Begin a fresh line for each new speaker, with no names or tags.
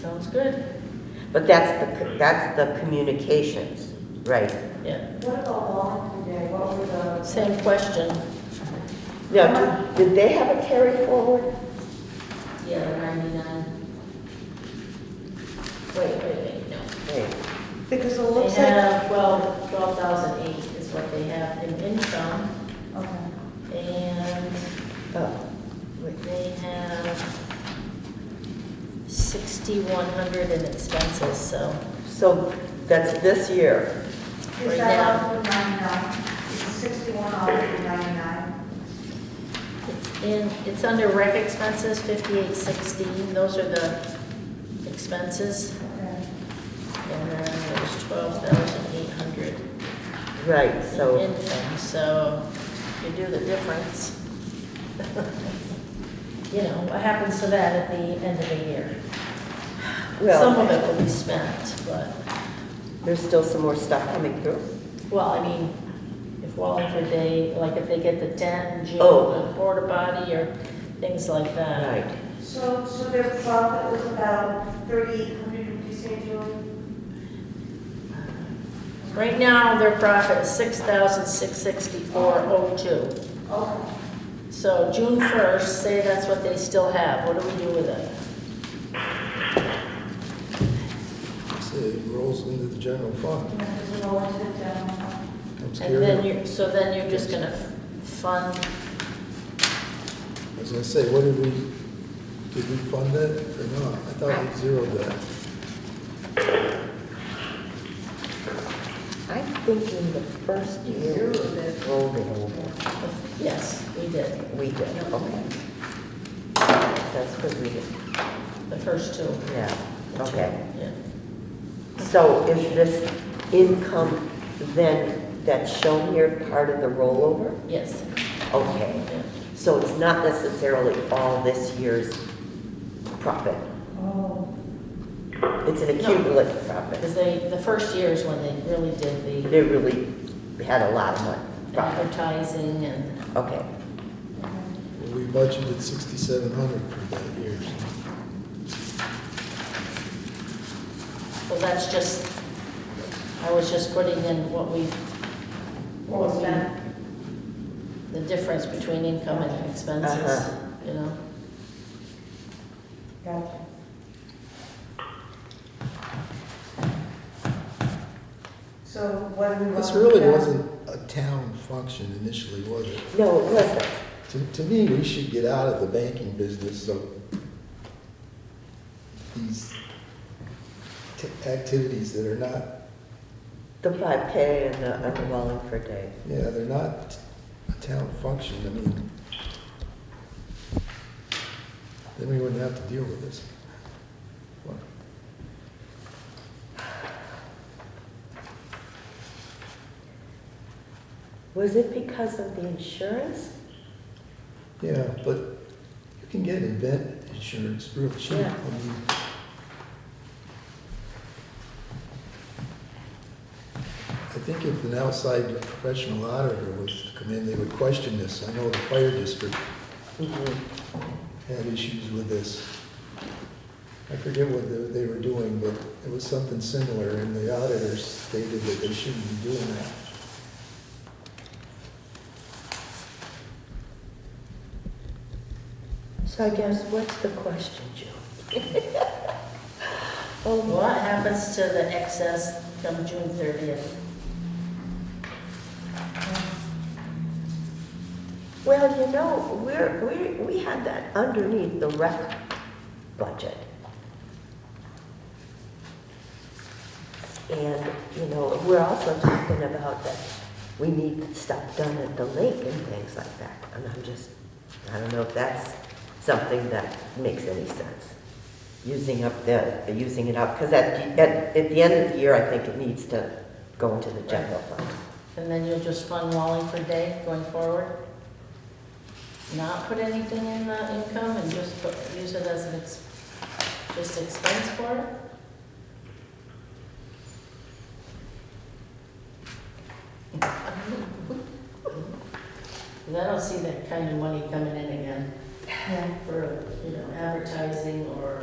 Sounds good,
But that's the, that's the communications, right?
yeah.
What about volunteer day? What were the?
Same question.
Now, do- did they have a carry forward?
Yeah, the ninety-nine. Wait, wait, wait, no.
Wait,
Because it
They
looks like.
have twelve, twelve thousand eight is what they have in income,
Okay.
and
oh, wait.
they have sixty-one hundred in expenses, so.
So that's this year.
Right
Is that off the ninety-nine? Is sixty-one off the ninety-nine?
It's in, it's under rec expenses, fifty-eight sixteen, those are the expenses.
Okay.
And then there's twelve thousand eight hundred
Right,
in
so,
income, so you do the difference. You know, what happens to that at the end of the year? Some
well,
of it will be spent, but,
there's still some more stuff coming through.
well, I mean, if Wallingford, they, like if they get the den, gym,
Oh.
the porta potty, or things like that.
Right.
So, so their profit was about thirty-eight hundred, would you say, Julie?
Right now, their profit is six thousand six sixty-four oh two.
Okay.
So June first, say that's what they still have, what do we do with it?
So it rolls into the general fund,
And does it roll into the general fund?
comes
And then
carry.
you, so then you're just gonna fund,
I was gonna say, what did we, did we fund it or not? I thought we zeroed that.
I'm thinking the first year we rolled it over.
yes, we did,
We did, okay. That's what we did,
the first two.
yeah, okay.
Yeah.
So is this income then that's shown here part of the rollover?
Yes.
Okay,
Yeah.
so it's not necessarily all this year's profit.
Oh,
It's an accumulative profit.
Because they, the first year is when they really did the
They really had a lot of money, profit.
advertising and,
Okay,
okay.
Well, We budgeted sixty-seven hundred for that year. so
well, that's just, I was just putting in what we,
What was that?
the difference between income and expenses,
Uh-huh.
you know?
Gotcha. So what do we? want
This
to
really
do?
wasn't a town function initially, was it?
no, it wasn't.
To, to me, we should get out of the banking business of these t- activities that are not,
The 5K and the and the Wallingford Day.
yeah, they're not a town function. I mean, then we wouldn't have to deal with this.
Was it because of the insurance?
Yeah, but you can get event insurance real cheap.
Yeah.
I mean, I think if an outside professional auditor was to come in, they would question this. I know the fire district
Mhm.
had issues with this. I forget what they- they were doing, but it was something similar, and the auditors stated that they shouldn't be doing that.
So I guess, what's the question, Joe? Oh,
What happens to the excess come June thirtieth?
well, you know, we're, we, we had that underneath the rec budget. And, you know, we're also talking about that we need stuff done at the lake and things like that. And I'm just, I don't know if that's something that makes any sense. Using up the, using it up, because at, at, at the end of the year, I think it needs to go into the general fund.
And then you'll just fund Wallingford Day going forward? Not put anything in the income and just put, use it as an ex, just expense for it? Cause I don't see that kind of money coming in again
Yeah.
for, you know, advertising or